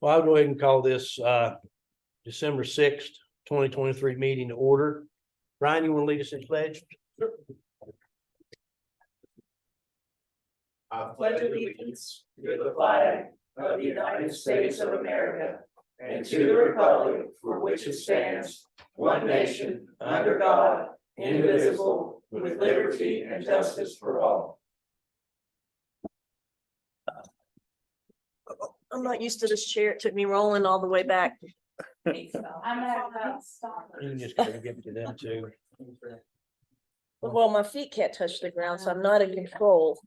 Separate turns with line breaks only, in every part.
Well, I'll go ahead and call this uh December sixth, twenty twenty-three meeting to order. Ryan, you want to lead us in pledge?
I pledge allegiance to the flag of the United States of America and to the republic for which it stands, one nation, under God, indivisible, with liberty and justice for all.
I'm not used to this chair. It took me rolling all the way back.
I'm gonna stop.
You just gotta give it to them too.
Well, my feet can't touch the ground, so I'm not in control.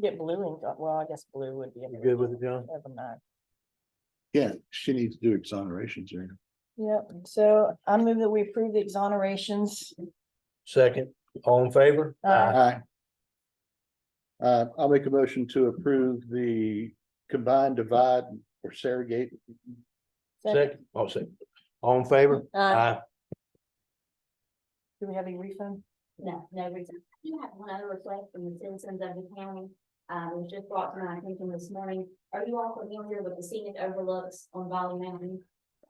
Get blue and, go- well, I guess blue would be.
You good with it, John?
Never mind.
Yeah, she needs to do exonerations here.
Yep, so I move that we approve the exonerations.
Second, all in favor?
Aye.
Aye. Uh, I'll make a motion to approve the combined divide or Saragate.
Second, oh, second, all in favor?
Uh,
Aye.
Do we have any refund?
No, no reason. I do have one other request from the citizens of the county. Um, it was just brought to my attention this morning. Are you all familiar with the scenic overlooks on Valley Mountain?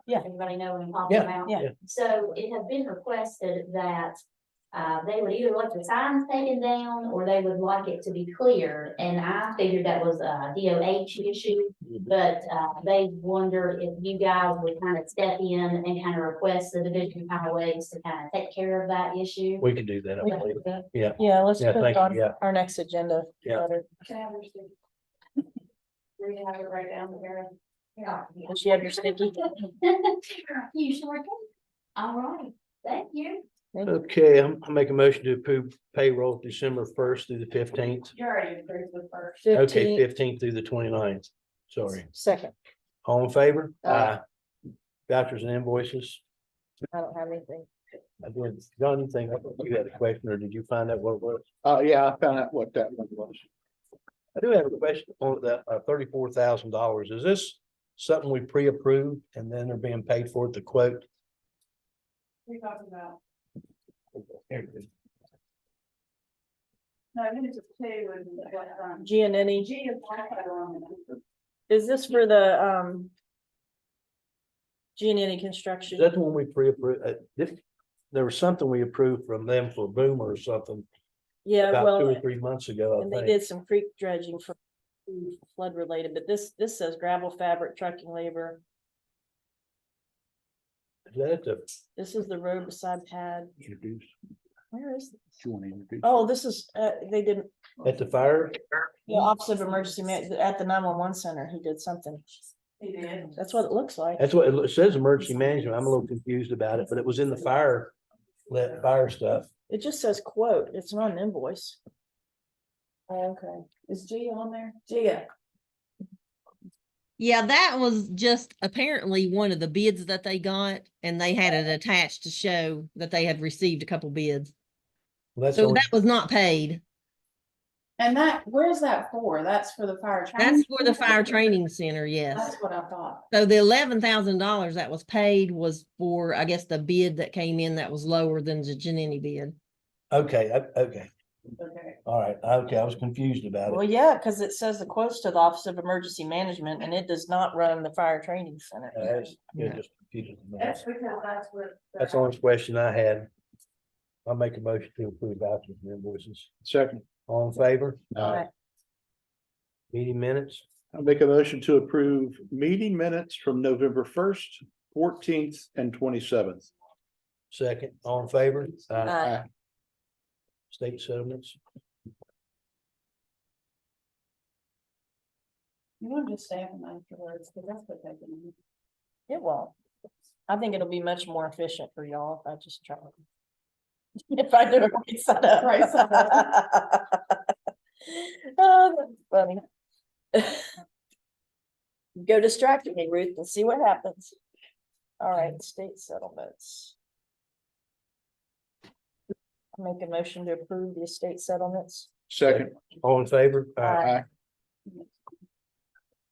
Yeah.
Everybody know what I'm talking about?
yeah.
Yeah.
So it had been requested that uh, they would either let the signs taken down or they would like it to be cleared. And I figured that was a DOH issue. But uh, they wondered if you guys would kind of step in and kind of request the Division of Highways to kind of take care of that issue.
We can do that, I
We can
believe.
do that.
Yeah.
Yeah, let's
Yeah,
put it
thank you,
on
yeah.
our next agenda.
Yeah.
letter.
We're gonna have it right down there. Yeah.
Does she have your sticky?
You sure can. All right, thank you.
Okay, I'm, I make a motion to approve payroll December first through the fifteenth.
You already approved the first.
Okay,
Fifteen,
fifteenth through the 29th. sorry.
second,
All in favor?
Aye.
Vouchers and invoices.
I don't have anything.
I did, John, you think, you had a question, or did you find out what it was?
Oh, yeah, I found out what that one was.
I do have a question on that, uh, thirty-four thousand dollars. Is this something we pre-approved and then they're being paid for at the quote?
We talked about,
There it is.
no, I think it's just two and what, um,
Giannini,
G is Wi-Fi on it.
is this for the, um, Giannini Construction?
That's when we pre-approved, uh, this, there was something we approved from them for Boomer or something
Yeah,
about two
Uh, well,
or three months ago,
and
I
they
think.
did some creek dredging for flood related, but this, this says gravel fabric trucking labor.
Is that the
This is the road beside pad.
Introduce,
Where is, it?
you want to introduce?
oh, this is, uh, they did,
at the fire?
the Office of Emergency Ma- at the nine one one center, he did something.
He did.
That's what it looks like.
That's what it lo- it says, emergency management. I'm a little confused about it, but it was in the fire, let fire stuff.
It just says quote, it's not an invoice. Okay, is Gia on there? Gia.
Yeah, that was just apparently one of the bids that they got and they had it attached to show that they had received a couple bids.
That's the
So
only-
that was not paid.
And that, where's that for? That's for the fire.
That's
training?
for the fire training center, yes.
That's what I thought.
So the eleven thousand dollars that was paid was for, I guess, the bid that came in that was lower than the Genini bid.
okay, o- okay,
Okay.
all right, okay, I was confused about it.
Well, yeah, because it says the quotes to the Office of Emergency Management and it does not run the fire training center.
Uh, That's you're
Yeah.
just confusing me.
That's because that's what.
That's the only question I had. I'll make a motion to approve vouchers and invoices.
Second,
All in favor?
uh,
Meeting minutes?
I'll make a motion to approve meeting minutes from November first, fourteenth and twenty-seventh.
Second, all in favor? Aye.
Uh,
State settlements?
You want to just say them afterwards, because that's what they do.
It won't. I think it'll be much more efficient for y'all if I just try. it. If I do it right side up.
Right side
Oh, that's funny. Go distract me, Ruth, and see what happens. All right, state settlements. Make a motion to approve the estate settlements.
Second,
All in favor?
Aye.
Aye.